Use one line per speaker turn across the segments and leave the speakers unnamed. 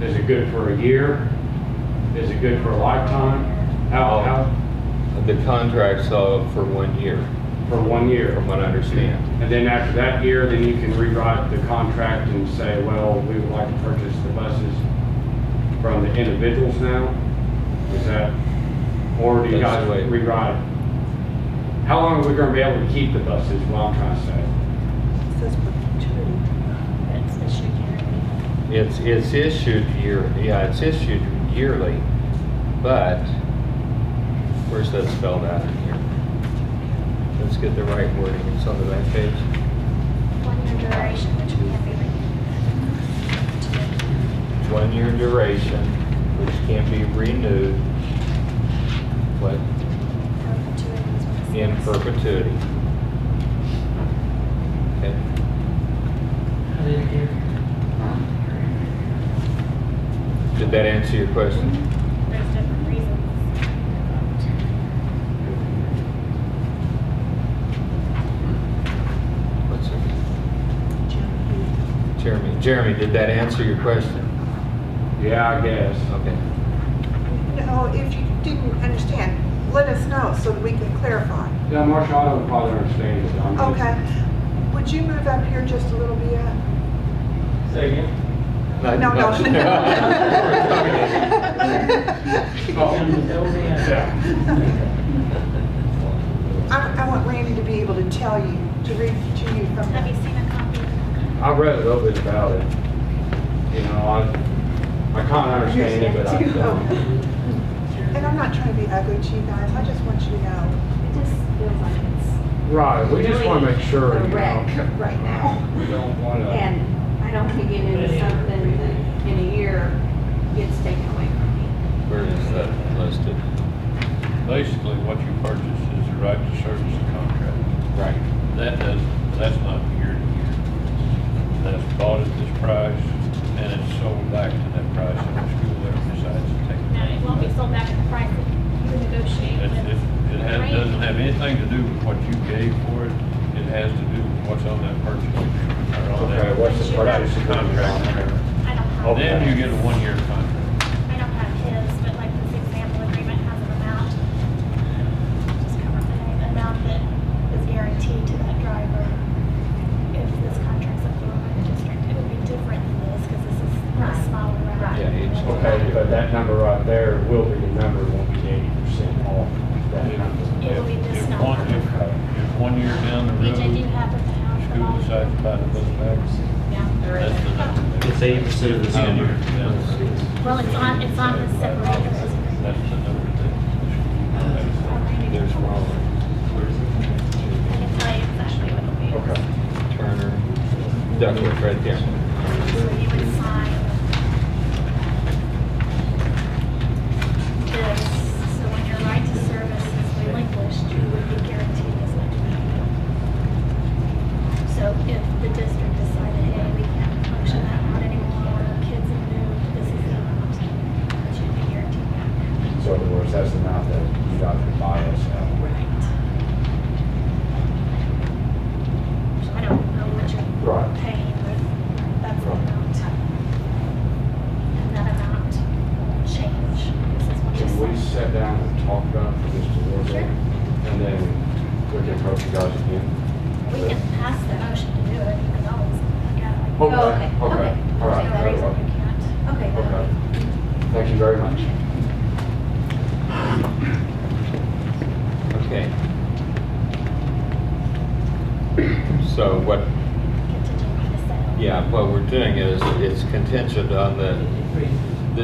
Is it good for a year? Is it good for a lifetime? How, how,
The contract's uh, for one year,
for one year?
from what I understand.
And then after that year, then you can rewrite the contract and say, well, we would like to purchase the buses from the individuals now? Is that, or do you
That's
guys
the way-
rewrite? it? How long are we gonna be able to keep the buses, is what I'm trying to say?
Says perpetuity.
That's issued yearly.
It's, it's issued year, yeah, it's issued yearly, but where's that spelled out in here? Let's get the right wording, it's on the back page.
One year duration, which we have every.
One-year duration, which can be renewed, but
Perpetuity is what it says.
in perpetuity. Okay. Did that answer your question?
There's different reasons.
What's her? Jeremy, Jeremy, did that answer your question?
Yeah, I guess.
Okay.
No, if you didn't understand, let us know so that we can clarify.
Yeah, Marshall, I don't probably understand it. I'm just-
Okay. Would you move up here just a little bit?
No,
No, no.
Yeah.
I, I want Randy to be able to tell you, to read to you from
Have you
the...
seen a copy of the contract?
I read a little bit about it. You know, I, I kind of understand it, but I don't.
And I'm not trying to be ugly to you guys, I just want you to know
It just feels like it's
Right, we just want to make sure,
a
you
wreck
know.
right now.
We don't want to,
And I don't want to get into something that in a year gets taken away from me.
Where is that listed?
Basically, what you purchase is the right to service the contract.
Right.
That does, that's not year to year. That's bought at this price, and it's sold back to that price if the school ever decides to take it.
No, it won't be sold back at the price that you negotiate
It's-
with.
It it has, doesn't have anything to do with what you gave for it. It has to do with what's on that purchase. agreement or on
okay,
that-
what's the Oh. purchase agreement?
Contract.
I don't have.
Then you get a one-year contract.
I don't have his, but like this example agreement has an amount. Just cover the amount that is guaranteed to that driver. If this contract's approved by the district, it would be different than this because this is a smaller route.
Yeah, it's-
Okay, but that number right there will be the number, won't be eighty percent off that number.
It will be this
If
number.
one- If if one year down the
Which
road,
I do have with the house.
school decides to buy the bus back,
Yeah.
That's the number.
It's eighty percent of the summer.
Well, it's on, it's on the separator.
That's the number that.
There's Raleigh,
I can tell you exactly what it'll be.
Okay.
Turner, Duckworth, right there.
So you would sign this, so when your right to service is relinquished, you would be guaranteed this much amount. So if the district decided, hey, we can't function that route anymore, kids have moved, this is the amount, that you'd be guaranteed back.
So in other words, that's the amount that you got to buy us out.
Right. I don't know what you're
Right.
paying, but that's the amount. And that amount will change. This is what
Can we
you
sit
said.
down and talk about this a little bit? And then we can approach you guys again?
We can pass the motion to do it, you can always,
Okay,
yeah.
okay,
okay, okay.
all right,
There's no
very
reason we
well.
can't.
Okay.
Okay, thank you very much.
Okay. So what,
Contingent on the sale.
yeah, what we're doing is, it's contingent on the,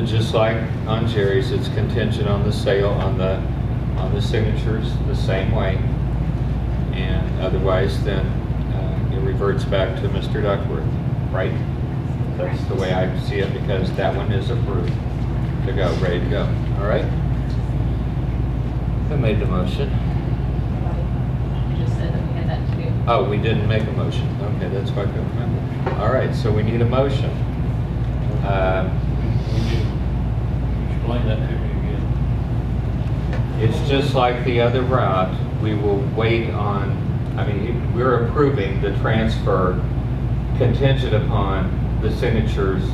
the, just like on Jerry's, it's contingent on the sale, on the, on the signatures, the same way. And otherwise, then, uh, it reverts back to Mr. Duckworth, right? That's the way I see it, because that one is approved to go, ready to go, all right? Who made the motion?
just said that we had that to do.
Oh, we didn't make a motion. Okay, that's what I couldn't remember. All right, so we need a motion. Uh,
Explain that to me again.
It's just like the other route, we will wait on, I mean, we're approving the transfer contingent upon the signatures